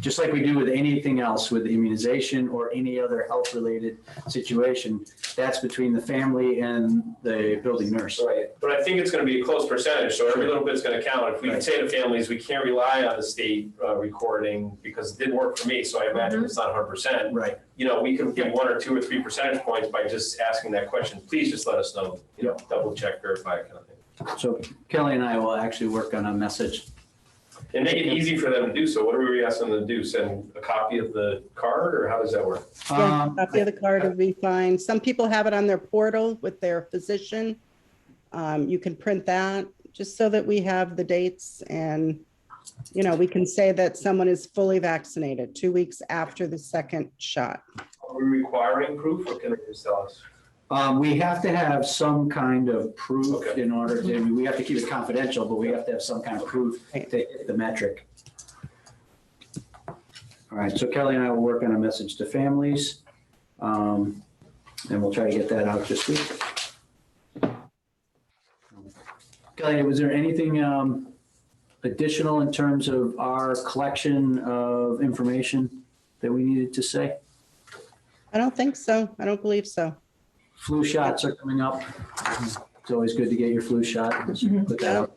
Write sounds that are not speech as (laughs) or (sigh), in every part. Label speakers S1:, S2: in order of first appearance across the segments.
S1: just like we do with anything else with immunization or any other health-related situation, that's between the family and the building nurse.
S2: Right, but I think it's gonna be a close percentage, so every little bit's gonna count. If we can
S1: Right.
S2: say to families, we can't rely on the state uh, recording because it didn't work for me, so I imagine
S1: Mm-hmm.
S2: it's not hundred percent.
S1: Right.
S2: You know, we could give one or two or three percentage points by just asking that question. Please just let us know, you know, double check, verify kind of thing.
S1: So Kelly and I will actually work on a message.
S2: And make it easy for them to do so. What are we asking them to do? Send a copy of the card or how does that work?
S3: Yeah,
S1: Um,
S3: Copy of the card will be fine. Some people have it on their portal with their physician. Um, you can print that just so that we have the dates and, you know, we can say that someone is fully vaccinated two weeks after the second shot.
S2: Are we requiring proof or can they just tell us?
S1: Um, we have to have some kind of proof
S2: Okay.
S1: in order, to- I mean, we have to keep it confidential, but we have to have some kind of proof to hit the metric. All right, so Kelly and I will work on a message to families. Um, and we'll try to get that out this week. Kelly, was there anything, um, additional in terms of our collection of information that we needed to say?
S3: I don't think so. I don't believe so.
S1: Flu shots are coming up. It's always good to get your flu shot. Put that out.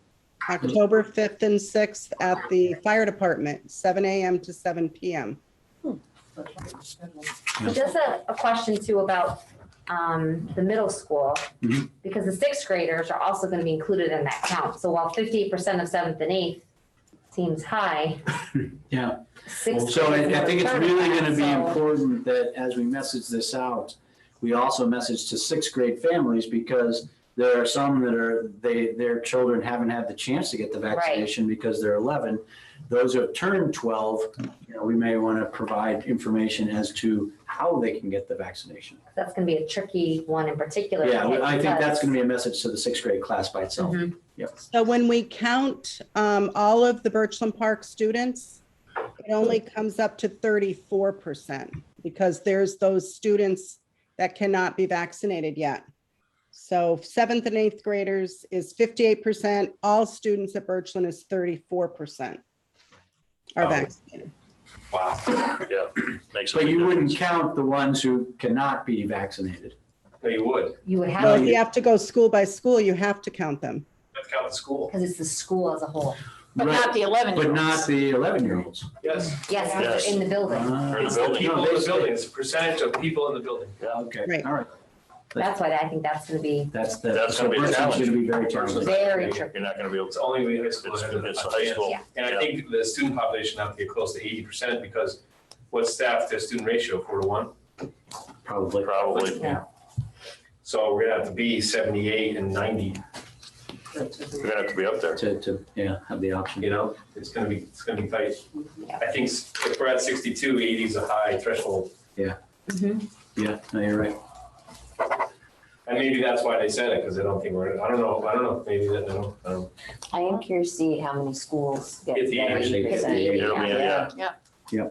S3: October 5th and 6th at the fire department, 7 AM to 7 PM.
S4: Just a, a question too about um, the middle school,
S1: Mhm.
S4: because the sixth graders are also gonna be included in that count. So while fifty percent of seventh and eighth seems high.
S1: (laughs) Yeah.
S4: Sixth.
S1: So I,
S4: grade is
S1: I think it's
S4: another third of
S1: really
S4: that,
S1: gonna be
S4: so-
S1: important that as we message this out, we also message to sixth grade families because there are some that are, they, their children haven't had the chance to get the vaccination because they're eleven. Those who have turned twelve, you know, we may wanna provide information as to how they can get the vaccination.
S4: That's gonna be a tricky one in particular.
S1: Yeah, I think that's gonna
S4: because-
S1: be a message to the sixth grade class by itself.
S4: Mhm.
S3: So when we count um, all of the Birchland Park students, it only comes up to 34% because there's those students that cannot be vaccinated yet. So seventh and eighth graders is 58%. All students at Birchland is 34% are
S2: Oh.
S3: vaccinated.
S2: Wow.
S5: Yeah, makes a
S1: But
S5: big
S1: you wouldn't
S5: difference.
S1: count the ones who cannot be vaccinated.
S2: No, you would.
S4: You would
S3: So if
S4: have,
S3: you have to go school by school, you have to count them.
S2: Let's count the school.
S4: because it's the school as a whole.
S6: But
S1: Right,
S6: not the 11 year
S1: But not the eleven-year-olds. Ah,
S2: Yes.
S4: Yes,
S5: Yes.
S4: because they're in the
S1: Uh-huh.
S4: building.
S5: the
S2: It's the
S5: building.
S2: people in the building.
S1: building.
S2: It's the percentage of people in the building.
S1: Okay,
S3: Right.
S1: all right,
S4: That's why I think that's gonna be
S1: that's the.
S5: That's
S1: so
S5: gonna be a
S1: Britain's
S5: challenge.
S1: Gonna be very challenging.
S4: very tricky.
S5: You're not gonna be able
S2: It's
S5: to.
S2: only we high school.
S5: It's,
S2: has
S5: it's
S2: a
S5: a high school.
S4: Yeah.
S2: And I
S5: Yeah.
S2: think the student population have to get close to eighty percent because what staff to student ratio, four to one?
S1: Probably.
S5: Probably.
S4: Yeah.
S2: So we're gonna have to be seventy-eight and ninety,
S5: You're gonna have to be up there.
S1: To, to, yeah, have the option.
S2: you know, it's gonna be, it's gonna be tight. I think s- if we're at 62, 80 is a high threshold,
S4: Mhm.
S1: Yeah, no, you're right.
S2: and maybe that's why they said it, because I don't think we're, I don't know, I don't know, maybe that, I don't, I don't.
S7: I am curious to see how many schools get
S2: Get the
S7: that
S2: age,
S1: they get the
S7: 80%.
S1: age.
S5: It'll be, yeah,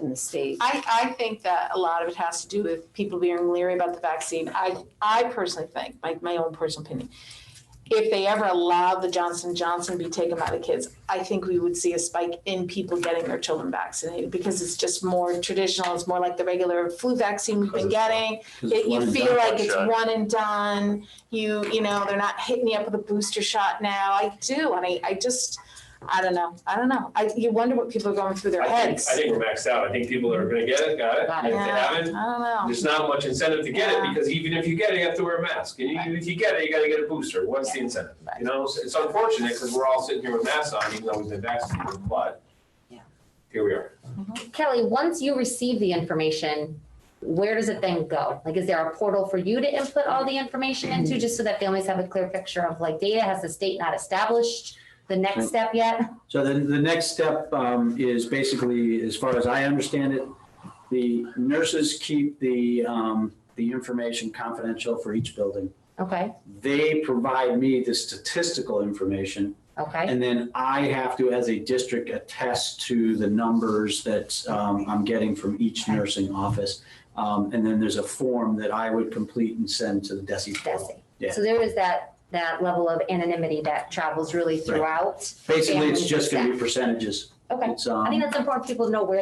S7: in the state.
S6: I, I think that a lot of it has to do with people being leery about the vaccine. I, I personally think, my, my own personal opinion, if they ever allowed the Johnson Johnson to be taken by the kids, I think we would see a spike in people getting their children vaccinated because it's just more traditional. It's more like the regular flu vaccine we've been getting.
S1: 'Cause
S6: It-
S1: it's one
S6: You
S1: and
S6: feel
S1: done.
S6: like it's
S5: shot.
S6: one and done, you, you know, they're not hitting you up with a booster shot now, I do, and I, I just, I don't know, I don't know, I, you wonder what people are going through their
S2: I think,
S6: heads.
S2: I think we're maxed out, I think people are gonna get it, got it,
S4: Got
S2: and
S4: it.
S2: if they
S6: Yeah, I
S2: haven't,
S6: don't know,
S2: There's not much incentive to get it,
S6: Yeah.
S2: because even if you get it, you have to wear a mask, and even if you get it, you gotta get a booster, what's the incentive? You know, it's it's unfortunate, because we're all sitting here with masks on, even though we've been vaccinated, but
S7: Yeah.
S2: here we are.
S4: Kelly, once you receive the information, where does it then go? Like, is there a portal for you to input all the information into, just so that families have a clear picture of like data? Has the state not established the next step yet?
S1: So then the next step um, is basically, as far as I understand it, the nurses keep the, um, the information confidential for each building.
S4: Okay,
S1: They provide me the statistical information
S4: okay,
S1: And then I have to, as a district, attest to the numbers that um, I'm getting from each nursing office. Um, And then there's a form that I would complete and send to the DESI
S4: that's
S1: portal. Yeah.
S4: it. So there is that, that level of anonymity that travels really throughout.
S1: Basically, it's just going to be percentages.
S4: Okay,
S1: It's, um,
S4: I think that's important for people to know where